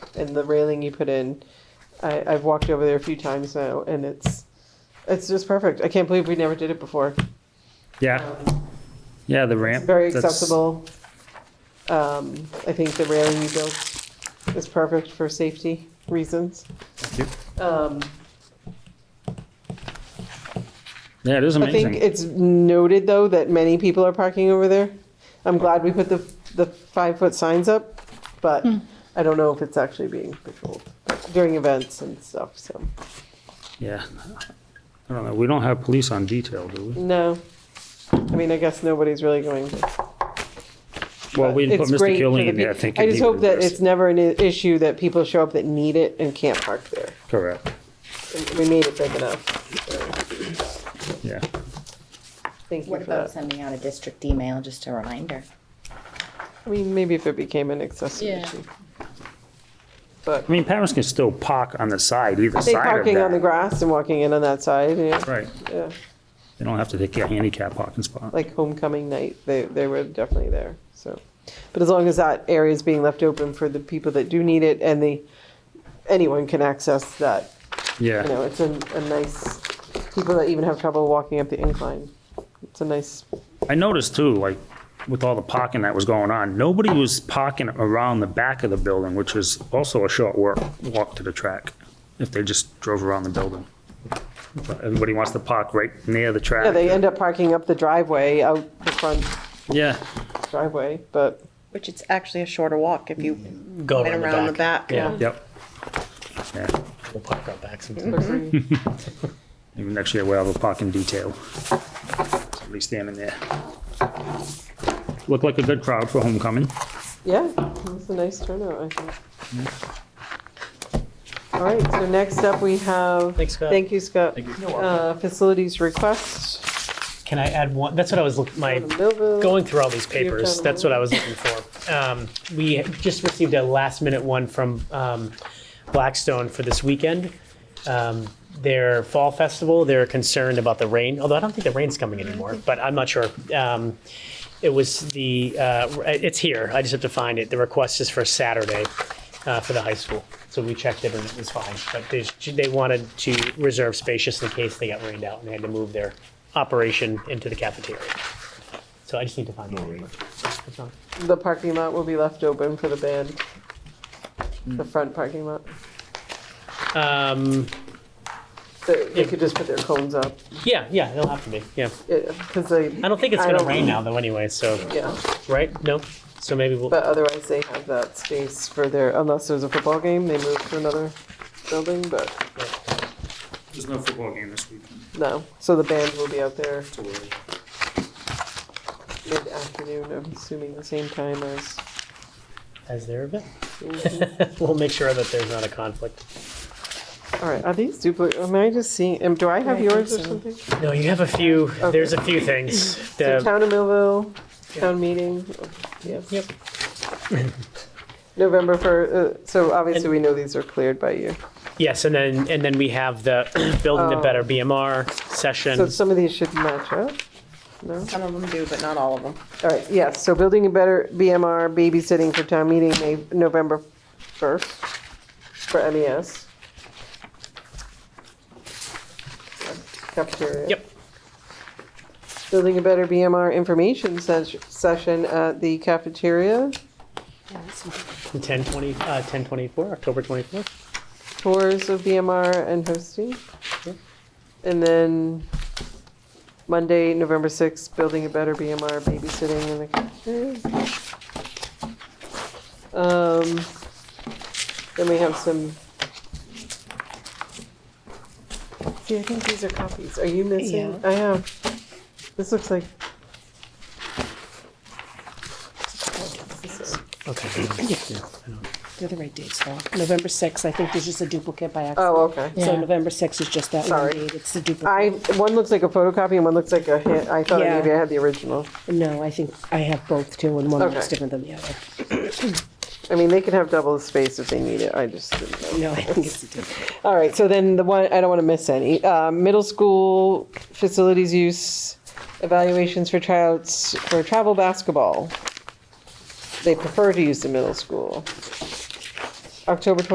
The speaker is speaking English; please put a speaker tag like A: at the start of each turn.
A: and the railing you put in. I, I've walked over there a few times now, and it's it's just perfect. I can't believe we never did it before.
B: Yeah, yeah, the ramp.
A: Very
B: that's-
A: accessible. Um, I think the railing you built is perfect for safety reasons.
B: you.
A: Um,
B: Yeah, it is
A: I think
B: amazing.
A: it's noted though that many people are parking over there. I'm glad we put the the five foot signs up, but I don't know if it's actually being patrolled during events and stuff. So
B: Yeah. I don't know, we don't have police on detail, do we?
A: no, I mean I guess nobody's really going.
B: Well, we put
A: It's
B: Mr.
A: great for
B: Killian
A: the
B: in there, I
A: peo-
B: think.
A: I
B: and
A: just
B: he
A: hope
B: would
A: that
B: address
A: it's
B: it.
A: never an i- issue that people show up that need it and can't park there.
B: Correct,
A: We made it big enough.
B: yeah.
A: Thank you
C: What
A: for
C: about
A: that.
C: sending out a district email, just a reminder?
A: I mean, maybe if it became an accessory
C: Yeah.
A: issue. But
B: I mean, parents can still park on the side, either
A: they
B: side of
A: parking on the
B: that.
A: grass and walking in on that side, yeah,
B: Right,
A: yeah.
B: they don't have to take a handicap parking spot.
A: like homecoming night, they, they were definitely there. So, but as long as that area is being left open for the people that do need it and the, anyone can access that, you know,
B: Yeah,
A: it's a, a nice, people that even have trouble walking up the incline. It's a nice,
B: I noticed too, like, with all the parking that was going on, nobody was parking around the back of the building, which is also a short work, walk to the track, if they just drove around the building. But everybody wants to park right near the track.
A: yeah, they end up parking up the driveway, out the front
B: Yeah,
A: driveway, but
D: Which it's actually a shorter walk if you
E: Go
D: went around the back.
E: Yeah,
B: yep. Yeah,
E: we'll park out back sometime.
A: agree.
B: maybe next year we'll have a parking detail. At least them in there. Looked like a good crowd for homecoming.
A: yeah, it was a nice turnout, I think. All right, so next up we have.
E: Mm-hmm. Thanks, Scott.
A: Thank you, Scott.
E: Thank you. You're welcome.
A: Uh, facilities request.
E: Can I add one? That's what I was looking, my,
A: Down to Millville.
E: going through all these
A: You're
E: papers,
A: done.
E: that's what I was looking for. Um, we just received a last minute one from um, Blackstone for this weekend. Um, their fall festival, they're concerned about the rain, although I don't think the rain's coming anymore, but I'm not sure. Um, it was the, uh, it's here, I just have to find it. The request is for Saturday uh, for the high school. So we checked it and it was fine, but they, they wanted to reserve space just in case they got rained out and they had to move their operation into the cafeteria. So I just need to find the word. That's all.
A: The parking lot will be left open for the band.
E: Mm.
A: The front parking lot.
E: Um,
A: They, they could just put their cones up.
E: yeah, yeah, it'll have to be. Yeah,
A: Because they.
E: I don't think it's
A: I
E: gonna
A: don't-
E: rain now though, anyway. So
A: Yeah,
E: right? No. So maybe we'll.
A: but otherwise they have that space for their, unless there's a football game, they move to another building, but
B: There's no football game this weekend.
A: no. So the band will be out there mid-afternoon, I'm assuming the same time as.
E: Has there been?
A: Mm-hmm.
E: we'll make sure that there's not a conflict.
A: All right, are these duplicate, am I just seeing, am- do I have
C: I think
A: yours or
C: so.
A: something?
E: No, you have a few.
A: Okay.
E: There's a few things.
A: So
E: The,
A: Town of Millville, town meeting, yes.
E: yep.
A: November 1st, so obviously
E: And-
A: we know these are cleared by you.
E: Yes, and then and then we have the building the better BMR session.
A: Oh. So some of these should match up.
D: Some of them do, but not all of them.
A: All right, yes, so building a better BMR babysitting for town meeting, May, November 1st for E MES. Cafeteria.
E: yep.
A: Building a better BMR information ses- session at the cafeteria,
E: Ten twenty. Uh, Ten twenty four. October twenty fourth.
A: tours of BMR and hosting.
E: Yep.
A: And then Monday, November 6th, building a better BMR babysitting in the cafeteria. Um, Then we have some. See, I think these are copies. Are you missing? I am. This looks like.
E: Okay.
F: They're the right dates, though. November 6th, I think there's just a duplicate by accident.
A: Oh, okay.
F: So
C: Yeah.
F: November 6th is just that one
A: Sorry.
F: date. It's the duplicate.
A: I, one looks like a photocopy and one looks like a hand, I thought
F: Yeah.
A: maybe I had the original.
F: No, I think I have both, too, and one looks
A: Okay.
F: different than the other.
A: I mean, they can have double the space if they need it. I just didn't know.
F: No, I think it's the duplicate.
A: All right, so then the one, I don't want to miss any. Uh, middle school facilities use evaluations for tryouts for travel basketball. They prefer to use the middle school. October